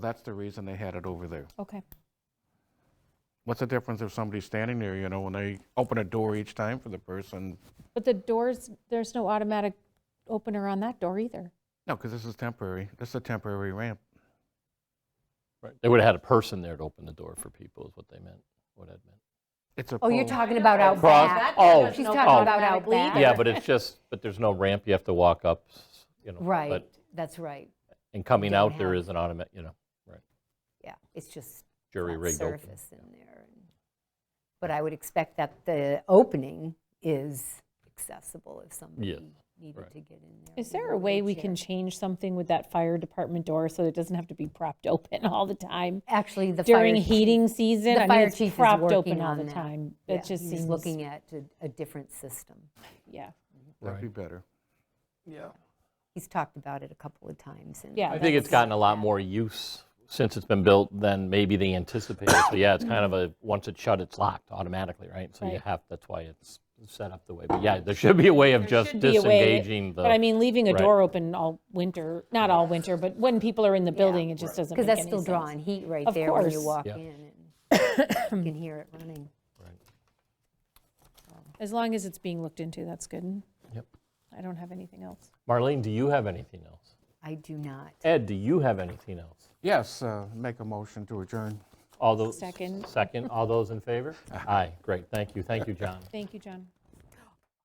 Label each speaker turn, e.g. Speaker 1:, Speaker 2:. Speaker 1: That's the reason they had it over there.
Speaker 2: Okay.
Speaker 1: What's the difference if somebody's standing there, you know, when they open a door each time for the person?
Speaker 2: But the doors, there's no automatic opener on that door either.
Speaker 1: No, because this is temporary. This is a temporary ramp.
Speaker 3: Right. They would have had a person there to open the door for people, is what they meant, what Ed meant.
Speaker 1: It's a.
Speaker 4: Oh, you're
Speaker 1: pole.
Speaker 4: talking about out
Speaker 3: Cross-
Speaker 4: back.
Speaker 3: oh,
Speaker 4: She's
Speaker 2: no
Speaker 4: talking about
Speaker 2: automatic
Speaker 4: out back.
Speaker 2: leave.
Speaker 3: Yeah, but it's just, but there's no ramp, you have to walk up, s- you know.
Speaker 4: Right,
Speaker 3: but-
Speaker 4: that's right.
Speaker 3: And coming
Speaker 4: don't
Speaker 3: out, there
Speaker 4: have-
Speaker 3: is an automatic, you know, right,
Speaker 4: Yeah, it's just
Speaker 3: jury
Speaker 4: flat
Speaker 3: rigged open.
Speaker 4: surface in there. But I would expect that the opening is accessible if somebody needed
Speaker 3: right.
Speaker 4: to get in there.
Speaker 2: Is
Speaker 4: with
Speaker 2: there a way we
Speaker 4: wheelchair.
Speaker 2: can change something with that fire department door so it doesn't have to be propped open all the time?
Speaker 4: Actually, the fire.
Speaker 2: During
Speaker 4: chief-
Speaker 2: heating season,
Speaker 4: the
Speaker 2: I mean,
Speaker 4: fire
Speaker 2: it's
Speaker 4: chief is
Speaker 2: propped open
Speaker 4: working
Speaker 2: all
Speaker 4: on
Speaker 2: the
Speaker 4: that.
Speaker 2: time.
Speaker 4: yeah,
Speaker 2: It just
Speaker 4: he's
Speaker 2: seems,
Speaker 4: Looking at a- a different system.
Speaker 2: yeah,
Speaker 1: That'd be better.
Speaker 4: He's talked about it a couple of times. and
Speaker 2: Yeah.
Speaker 3: I think it's
Speaker 4: that's-
Speaker 3: gotten a lot more use since it's been built than maybe they anticipated. So yeah, it's kind of a, once it's shut, it's locked automatically, right? So you
Speaker 2: Right.
Speaker 3: have, that's why it's set up the way. But yeah, there should be a way of just
Speaker 2: be a way-
Speaker 3: disengaging the.
Speaker 2: But I mean, leaving a
Speaker 3: Right.
Speaker 2: door open all winter, not all winter, but when people are in the building, it just doesn't make
Speaker 4: Because
Speaker 2: any
Speaker 4: that's
Speaker 2: sense.
Speaker 4: still drawing heat right
Speaker 2: Of
Speaker 4: there when you
Speaker 2: course.
Speaker 4: walk
Speaker 3: Yeah.
Speaker 4: in. and You can hear it running.
Speaker 2: As long as it's being looked into, that's good.
Speaker 3: Yep.
Speaker 2: I don't have anything else.
Speaker 3: Marlene, do you have anything else?
Speaker 4: I do not.
Speaker 3: Ed, do you have anything else?
Speaker 1: Yes, uh, make a motion to adjourn.
Speaker 3: All those.
Speaker 2: Second.
Speaker 3: Second, all those in favor? Aye, great, thank you, thank you, John.
Speaker 2: Thank you, John.